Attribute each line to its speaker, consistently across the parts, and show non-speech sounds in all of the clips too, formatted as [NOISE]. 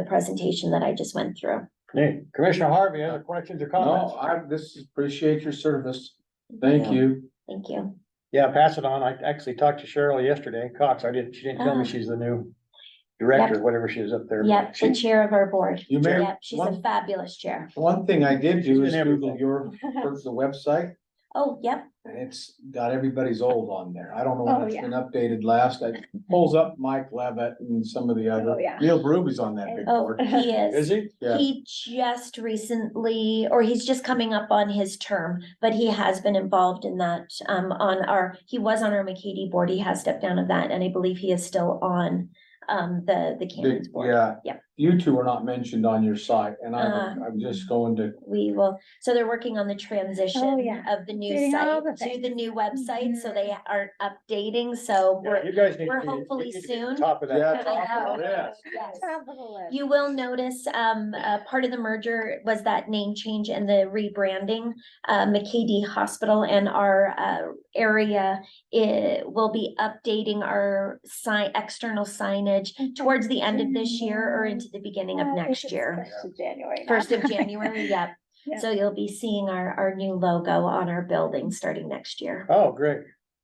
Speaker 1: the presentation that I just went through.
Speaker 2: Hey, Commissioner Harvey, other questions or comments?
Speaker 3: No, I, this, is- appreciate your service. Thank you.
Speaker 1: Thank you.
Speaker 2: Yeah, pass it on. I actually talked to Cheryl yesterday, Cox. I didn't, she didn't tell me
Speaker 1: Ah.
Speaker 2: she's the new director, whatever she is up there.
Speaker 1: Yep, the
Speaker 2: She-
Speaker 1: chair of our board.
Speaker 3: You may,
Speaker 1: Yep, she's a
Speaker 3: one,
Speaker 1: fabulous chair.
Speaker 3: [LAUGHS]
Speaker 1: [LAUGHS]
Speaker 3: one thing I did do is
Speaker 2: She's in
Speaker 3: Google
Speaker 2: everything.
Speaker 3: your, search the website,
Speaker 1: Oh, yep,
Speaker 3: and it's got everybody's old on there. I don't know
Speaker 4: Oh,
Speaker 3: when it's
Speaker 4: yeah.
Speaker 3: been updated last. I pulls up Mike Levitt and some of the
Speaker 4: Oh,
Speaker 3: other,
Speaker 4: yeah.
Speaker 3: Neil Ruby's on that big
Speaker 1: oh,
Speaker 3: board.
Speaker 1: he is.
Speaker 2: Is he?
Speaker 3: Yeah.
Speaker 1: He just recently, or he's just coming up on his term, but he has been involved in that, um, on our, he was on our McKady board. He has stepped down of that, and I believe he is still on, um, the, the
Speaker 3: Big-
Speaker 1: Cannons board.
Speaker 3: Yeah.
Speaker 1: Yeah.
Speaker 3: You two are not mentioned on your site, and I'm,
Speaker 4: Uh,
Speaker 1: Ah.
Speaker 3: I'm just going to,
Speaker 1: We will, so they're working on the transition
Speaker 4: Oh, yeah.
Speaker 1: of the new
Speaker 4: Doing all
Speaker 1: site
Speaker 4: the
Speaker 1: to the
Speaker 4: things.
Speaker 1: new website, so
Speaker 4: Mhm.
Speaker 1: they aren't updating, so
Speaker 2: Yeah,
Speaker 1: we're,
Speaker 2: you guys need
Speaker 1: we're
Speaker 2: to be- you
Speaker 1: hopefully
Speaker 2: need to be
Speaker 1: soon.
Speaker 2: Top of
Speaker 3: yeah.
Speaker 2: that.
Speaker 3: talk about that.
Speaker 1: Yes.
Speaker 4: Top of the list.
Speaker 1: You will notice, um, uh, part of the merger was that name change and the rebranding. Uh, McKD Hospital and our, uh, area, it will be updating our sign, external signage towards the end of this year or into the beginning of
Speaker 4: Uh,
Speaker 1: next
Speaker 4: it's
Speaker 1: year.
Speaker 4: First of January. now. [LAUGHS]
Speaker 1: First of January, yep. So you'll be seeing our, our new logo on our building starting next year.
Speaker 2: Oh, great.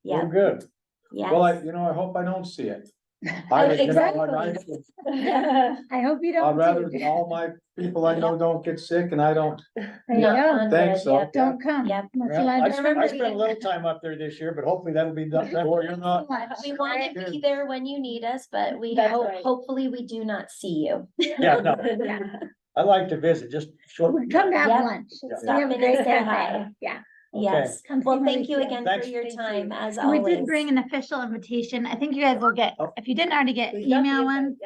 Speaker 2: Well,
Speaker 1: Yeah,
Speaker 2: good.
Speaker 3: Well, I,
Speaker 1: yes.
Speaker 3: you know, I hope I don't
Speaker 1: [LAUGHS]
Speaker 3: see it.
Speaker 1: Oh,
Speaker 3: I, you know, I'd
Speaker 1: [LAUGHS]
Speaker 3: like-
Speaker 1: exactly.
Speaker 4: I hope you
Speaker 3: I'd
Speaker 4: don't.
Speaker 3: rather
Speaker 4: do.
Speaker 3: all my people I know don't get sick and I don't,
Speaker 4: There you
Speaker 1: Not
Speaker 4: go.
Speaker 1: on
Speaker 3: Thanks,
Speaker 1: the- yep,
Speaker 3: though.
Speaker 4: Don't come.
Speaker 1: Yep.
Speaker 4: Let's
Speaker 2: Well,
Speaker 4: let
Speaker 2: I
Speaker 4: them
Speaker 2: spent, I
Speaker 4: be.
Speaker 2: spent a little time up there this year, but hopefully that'll be done.
Speaker 3: well,
Speaker 1: [LAUGHS]
Speaker 3: you're not,
Speaker 1: We want to be there when you need us, but we
Speaker 4: That's
Speaker 1: hope,
Speaker 4: right.
Speaker 1: hopefully we do not see you.
Speaker 2: Yeah, no,
Speaker 4: Yeah.
Speaker 2: I like to visit, just short.
Speaker 4: We'll Come have
Speaker 1: Yep.
Speaker 4: lunch. It's- we
Speaker 1: Stop
Speaker 4: have a
Speaker 1: in
Speaker 4: great
Speaker 1: and say [LAUGHS]
Speaker 4: cafe.
Speaker 1: hi.
Speaker 4: Yeah.
Speaker 2: Okay.
Speaker 1: Yes,
Speaker 4: Come see
Speaker 1: well, thank you
Speaker 4: Mauricio.
Speaker 1: again for
Speaker 2: Thanks.
Speaker 1: your time, as
Speaker 5: We
Speaker 1: always.
Speaker 5: did bring an official invitation. I think you guys will get,
Speaker 2: Oh.
Speaker 5: if you didn't already get email one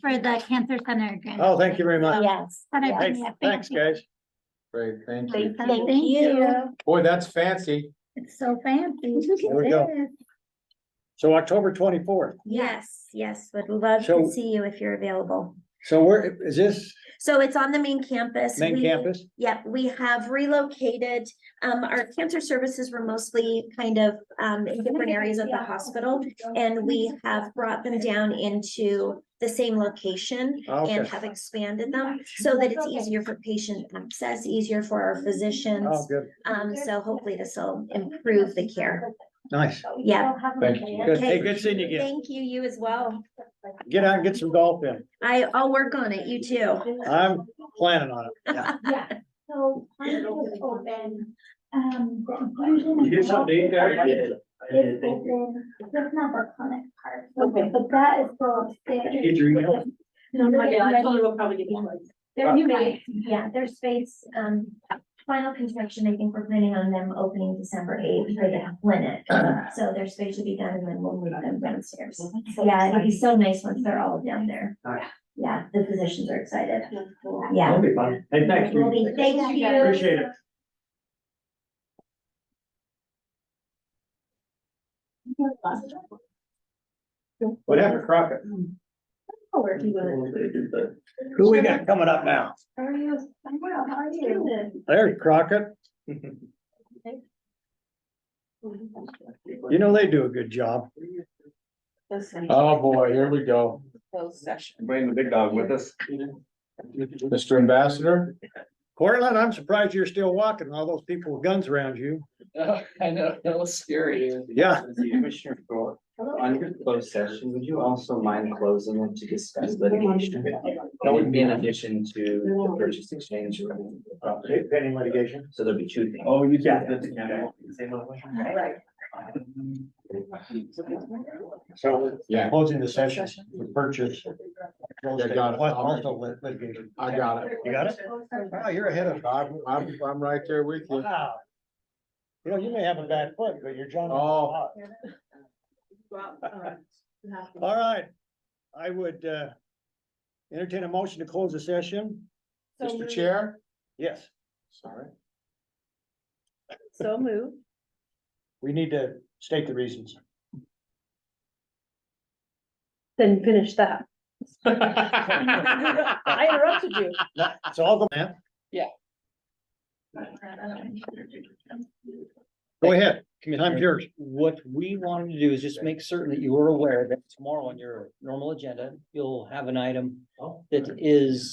Speaker 5: for the cancer center. grant.
Speaker 2: Oh, thank you very much.
Speaker 1: Yes,
Speaker 5: But I
Speaker 1: yeah.
Speaker 5: bring
Speaker 2: Thanks,
Speaker 5: you a
Speaker 2: thanks,
Speaker 5: fancy-
Speaker 2: guys.
Speaker 3: great, thank you.
Speaker 1: Thank
Speaker 5: Awesome.
Speaker 1: you.
Speaker 5: Thank you.
Speaker 3: Boy, that's fancy.
Speaker 5: It's so fancy.
Speaker 2: There we go. So October twenty-fourth.
Speaker 1: yes, yes, would love
Speaker 2: So-
Speaker 1: to see you if you're available.
Speaker 2: So where, is this
Speaker 1: So it's on the main campus.
Speaker 2: main
Speaker 1: We-
Speaker 2: campus?
Speaker 1: Yep, we have relocated, um, our cancer services were mostly kind of, um, in different areas of the hospital. And we have brought them down into the same location. and
Speaker 2: Okay.
Speaker 1: have expanded them so that it's easier for patient access, easier for our
Speaker 2: Oh,
Speaker 1: physicians.
Speaker 2: good.
Speaker 1: Um, so hopefully this [LAUGHS] will improve the care.
Speaker 2: Nice.
Speaker 1: Yeah.
Speaker 3: Thank you.
Speaker 2: Good. Hey, good seeing you again.
Speaker 1: Thank you, you as well.
Speaker 2: Get out and get some golf in.
Speaker 1: I, I'll work on it, you too.
Speaker 2: I'm planning on it. Yeah.
Speaker 5: Yeah. So. I'm gonna open, um, the inclusion
Speaker 6: You did
Speaker 5: and
Speaker 6: something there?
Speaker 5: health
Speaker 6: did. I
Speaker 5: is
Speaker 6: did, thank you.
Speaker 5: open. That's not the clinic part, okay, but that is still upstairs.
Speaker 6: Did you get your email?
Speaker 5: No,
Speaker 1: Oh
Speaker 5: no,
Speaker 7: Yeah, I
Speaker 5: no,
Speaker 7: totally will probably get you one.
Speaker 1: There's space, yeah, there's space, um, final construction, I think we're planning on them opening December eighth for the clinic. So their space should be done and then we'll move them downstairs. Yeah, it'll be so nice once they're all down there. Yeah, the physicians are excited. Yeah.
Speaker 6: That'll be fun. Hey, thank
Speaker 1: Will be-
Speaker 6: you.
Speaker 1: Thank you.
Speaker 6: Appreciate it.
Speaker 3: What happened, Crockett?
Speaker 7: I'll work you with it.
Speaker 2: Who we got coming up now?
Speaker 7: How are you? I'm well, how are you?
Speaker 2: There's Crockett. You know, they do a good job.
Speaker 3: Oh, boy, here we go.
Speaker 7: Closed session.
Speaker 6: Bring the big dog with us.
Speaker 3: Mr. Ambassador?
Speaker 2: Cortland, I'm surprised you're still walking, all those people with guns around you.
Speaker 8: [LAUGHS] I know, that was scary.
Speaker 2: Yeah.
Speaker 8: Commissioner Thor, on your closed session, would you also mind closing it to discuss litigation? That would be in addition to the purchase exchange. or the property.
Speaker 2: Pending litigation.
Speaker 8: So there'd be two things.
Speaker 6: Oh, you
Speaker 2: Yeah.
Speaker 6: got that.
Speaker 7: Right.
Speaker 2: So
Speaker 3: Yeah.
Speaker 2: closing the session for purchase.
Speaker 3: Yeah, got it.
Speaker 2: Also lit- litigation.
Speaker 3: I got it.
Speaker 2: You got it? Wow, you're ahead of.
Speaker 3: I'm, I'm, I'm right there with you.
Speaker 2: Wow. You know, you may have a bad foot, but you're John.
Speaker 3: Oh.
Speaker 2: All right. I would uh entertain a motion to close the session.
Speaker 3: Mr. Chair?
Speaker 2: Yes,
Speaker 3: Sorry.
Speaker 7: So move.
Speaker 2: we need to state the
Speaker 3: [LAUGHS]
Speaker 2: reasons. [LAUGHS]
Speaker 7: Then finish that. [LAUGHS] I interrupted you.
Speaker 2: It's all the man. Go ahead, time's yours.
Speaker 9: What we wanted to do is just make certain
Speaker 2: Oh.
Speaker 9: that you were aware that tomorrow on your normal agenda, you'll have an item that is